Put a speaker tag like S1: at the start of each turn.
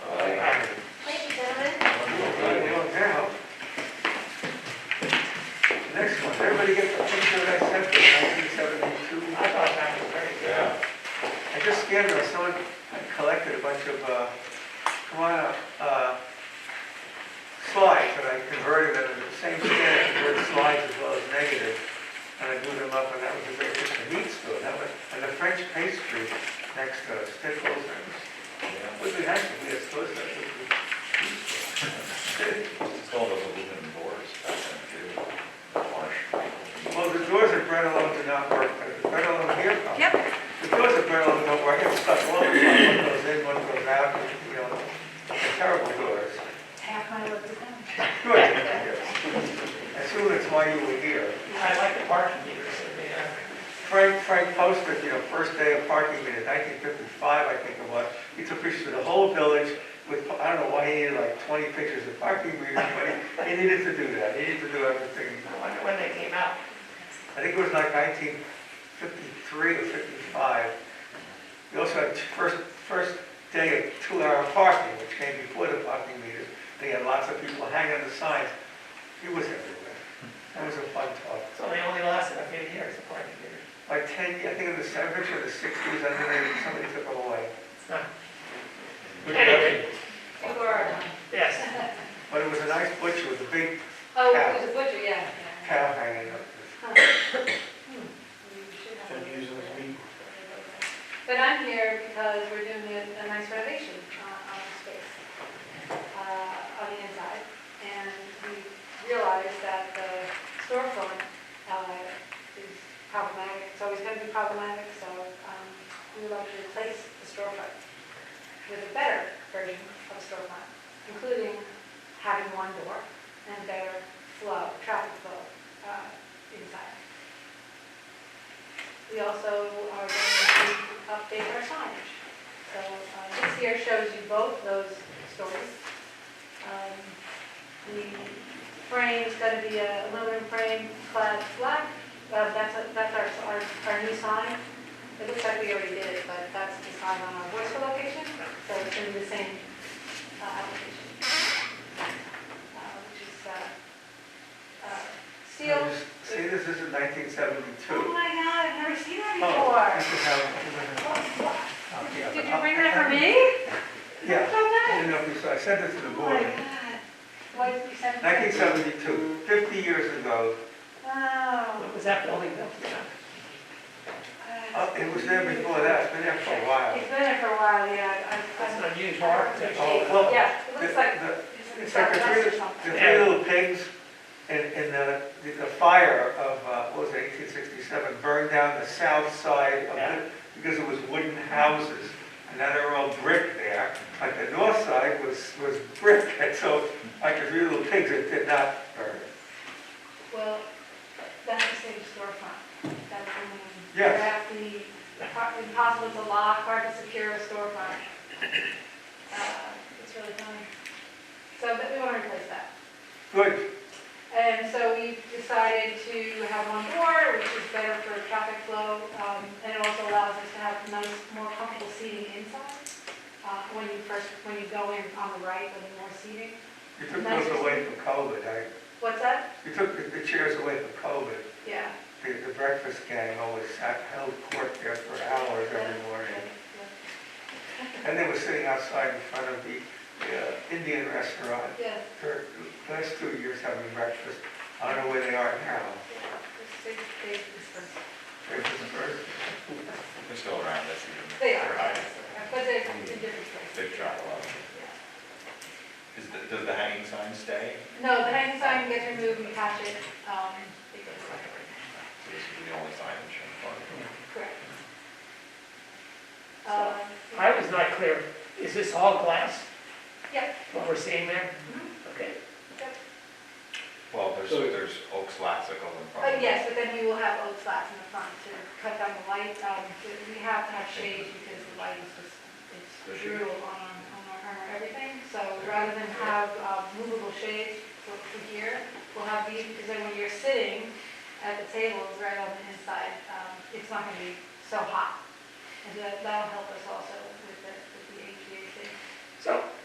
S1: uh, why you were here.
S2: I like the parking meters, I mean, uh,
S1: Frank, Frank Poster, you know, first day of parking in nineteen fifty-five, I think it was, he took pictures of the whole village with, I don't know why he needed like twenty pictures of parking meters, but he, he needed to do that, he needed to do everything.
S2: I wonder when they came out.
S1: I think it was like nineteen fifty-three or fifty-five. We also had t- first, first day of two-hour parking, which came before the parking meters. They had lots of people hanging the signs. It was everywhere. That was a fun talk.
S2: So they only lasted a few years, the parking meters.
S1: Like ten, I think in the seventies or the sixties, I think they- somebody took them away.
S2: Huh. Anyway,
S3: You were,
S2: yes,
S1: But it was a nice butcher with a big
S3: oh, it was a butcher, yeah. yeah.
S1: cow hanging up.
S3: You should have
S4: Ten
S3: a-
S4: years of this meeting.
S3: But I'm here because we're doing a a nice renovation uh, on the space, uh, on the inside. And we realized that the storefront uh, is problematic, it's always going to be problematic, so um, we would like to replace the storefront with a better version of storefront, including having one door and better flow, traffic flow uh, inside. We also are going to update our signage. So uh, this here shows you both those stories. Um, The frame's going to be a aluminum frame clad black. Uh, That's a- that's our our our new sign. It looks like we already did it, but that's the sign on our Worcester location, so it's going to be the same uh, application. Uh, Which is uh, uh, steel.
S1: See, this is in nineteen
S3: Oh
S1: seventy-two.
S3: my God, I've never seen that
S1: Oh,
S3: before.
S1: this is how.
S3: Did you bring that for me?
S1: Yeah. I
S3: From that?
S1: didn't know if you saw, I sent it to the
S3: Oh my
S1: board.
S3: God. Why did you send that?
S1: 1972, 50 years ago,
S3: Wow.
S2: what was that building built? you know?
S3: Uh,
S1: Uh, it was there before that, it's been there for a while.
S3: It's been there for a while, yeah. I- I-
S2: That's an unusual architecture.
S1: Oh, well,
S3: Yeah, it
S1: The-
S3: looks like
S1: the-
S3: it's in
S1: It's like the
S3: Southwest or
S1: three, the
S3: something.
S1: three little pigs and, and the, the- the fire of, uh, what was it, 1867 burned down the south side of
S2: Yeah.
S1: it because it was wooden houses. And now they're all brick there, like the north side was, was brick. And so like the three little pigs, it did not burn.
S3: Well, that's the same storefront. That's the name.
S1: Yes.
S3: Exactly, Par- impossible to lock, hard to secure a storefront. Uh, It's really funny. So but we want to replace that.
S1: Good,
S3: And so we decided to have one door, which is better for traffic flow, um, and it also allows us to have nice, more comfortable seating inside. Uh, When you first, when you go in on the right, with more seating.
S1: you took those away from COVID, I,
S3: What's that?
S1: you took the- the chairs away from COVID.
S3: Yeah.
S1: The, the breakfast gang always sat, held court there for hours every morning. And they were sitting outside in front of the uh, Indian restaurant
S3: Yeah.
S1: for the last two years having breakfast. I don't know where they are now.
S3: They- they- they-
S1: Breakfast first.
S5: They're still around, that's even.
S3: They are,
S5: they're hiding.
S3: but they're in different places.
S5: They've tried a lot. Is, the- does the hanging sign stay?
S3: No, the hanging sign gets removed, we patch it, um, it goes away.
S5: So This is the only sign in Shenandoah.
S3: Correct. Um,
S2: I was not clear, is this all glass,
S3: yeah, Mm-hmm.
S2: what we're seeing there? Okay,
S5: Well, there's,
S4: So-
S5: there's oak slats that go in front.
S3: but Uh, yes, but then we will have oak slats in the front to cut down the light. Um, We have to have shade because the light is just, it's brutal on, on our, on our everything. So rather than have uh, movable shades for for here, we'll have these, because then when you're sitting at the tables right on the inside, um, it's not gonna be so hot. And that, that'll help us also with